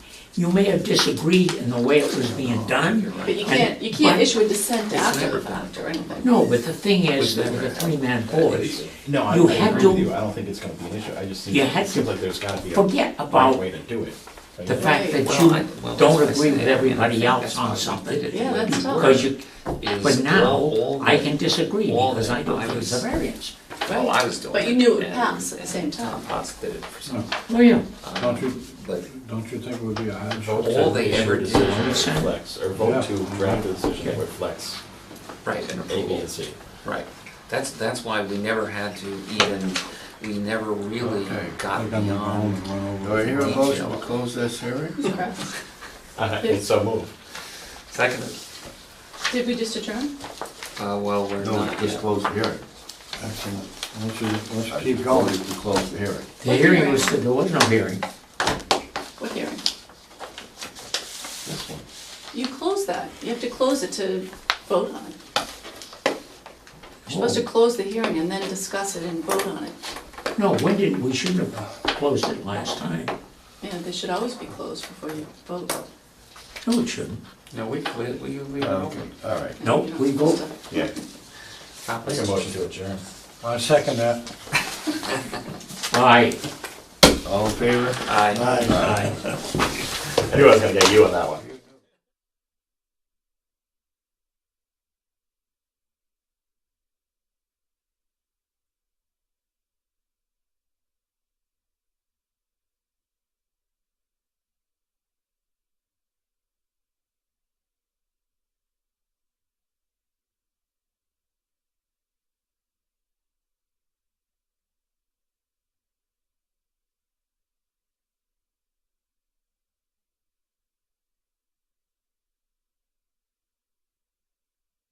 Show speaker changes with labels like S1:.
S1: you may have disagreed in the way it was being done.
S2: But you
S1: and-
S2: can't, you can't
S1: but-
S2: issue a dissent after the
S3: never been.
S2: fact or anything.
S1: No, but the thing is, that with a three-man board,
S4: No, I
S1: You
S4: I
S1: had
S4: agree with
S1: to-
S4: you, I don't think it's gonna be an issue, I just think,
S1: You had
S4: it seems
S1: to
S4: like there's gotta be a
S1: forget
S4: right
S1: about
S4: way to do it. Like,
S1: the fact that
S3: Well, I- well,
S1: you don't
S3: that's what I
S1: agree with
S3: said, and I
S1: everybody
S3: think
S1: else
S3: that's
S1: on
S3: why we did
S1: something.
S3: it the
S2: Yeah,
S3: way
S2: that's
S3: we
S2: tough.
S3: were,
S1: Because you,
S3: is
S1: but now,
S3: all
S1: I
S3: the-
S1: can disagree,
S3: all
S1: because
S3: the-
S1: I don't
S3: I
S1: think it's a
S3: was-
S1: variance.
S3: Well, I was doing it.
S2: But you knew it would
S3: and-
S2: pass at the same time.
S3: And Tom Potts did it for some,
S1: Oh, yeah.
S5: Don't you,
S3: but
S5: don't you think it would be a hardship?
S4: vote to
S3: all they
S4: issue a
S3: ever did
S4: decision
S3: was
S4: that
S1: send-
S4: reflects- Or vote to
S5: Yeah.
S4: draft a decision that reflects
S3: right, an
S4: A, B,
S3: approval.
S4: and C.
S3: Right, that's, that's why we never had to even, we never really
S5: Okay,
S3: got
S5: I think I'm gonna go home
S3: beyond.
S5: and run
S6: Do I
S5: over.
S6: hear a
S3: Detail.
S6: motion to close this hearing?
S2: Okay.
S4: Uh, It's so moved.
S3: Second,
S2: Did we just adjourn?
S3: uh, well, we're
S6: No,
S3: not
S6: just
S3: yet.
S6: close the hearing.
S5: Excellent. Let's, just- let's
S6: Keep
S5: keep
S6: going
S5: going.
S6: to close the hearing.
S1: The hearing was, there was no hearing.
S2: What hearing?
S6: This one.
S2: You close that. You have to close it to vote on it. You're supposed
S1: Oh.
S2: to close the hearing and then discuss it and vote on it.
S1: No, when did, we shouldn't have closed it last time.
S2: Yeah, they should always be closed before you vote.
S1: No, it shouldn't.
S3: No, we, we, we, we were
S6: Uh, Okay,
S3: open.
S6: all right.
S1: Nope,
S2: You know,
S1: we vote.
S6: Yeah.
S3: Stop
S4: Make a
S3: us.
S4: motion to adjourn.
S5: I second that.
S1: Aye.
S6: All in favor?
S3: Aye.
S1: Aye.
S4: I knew I was gonna get you on that one.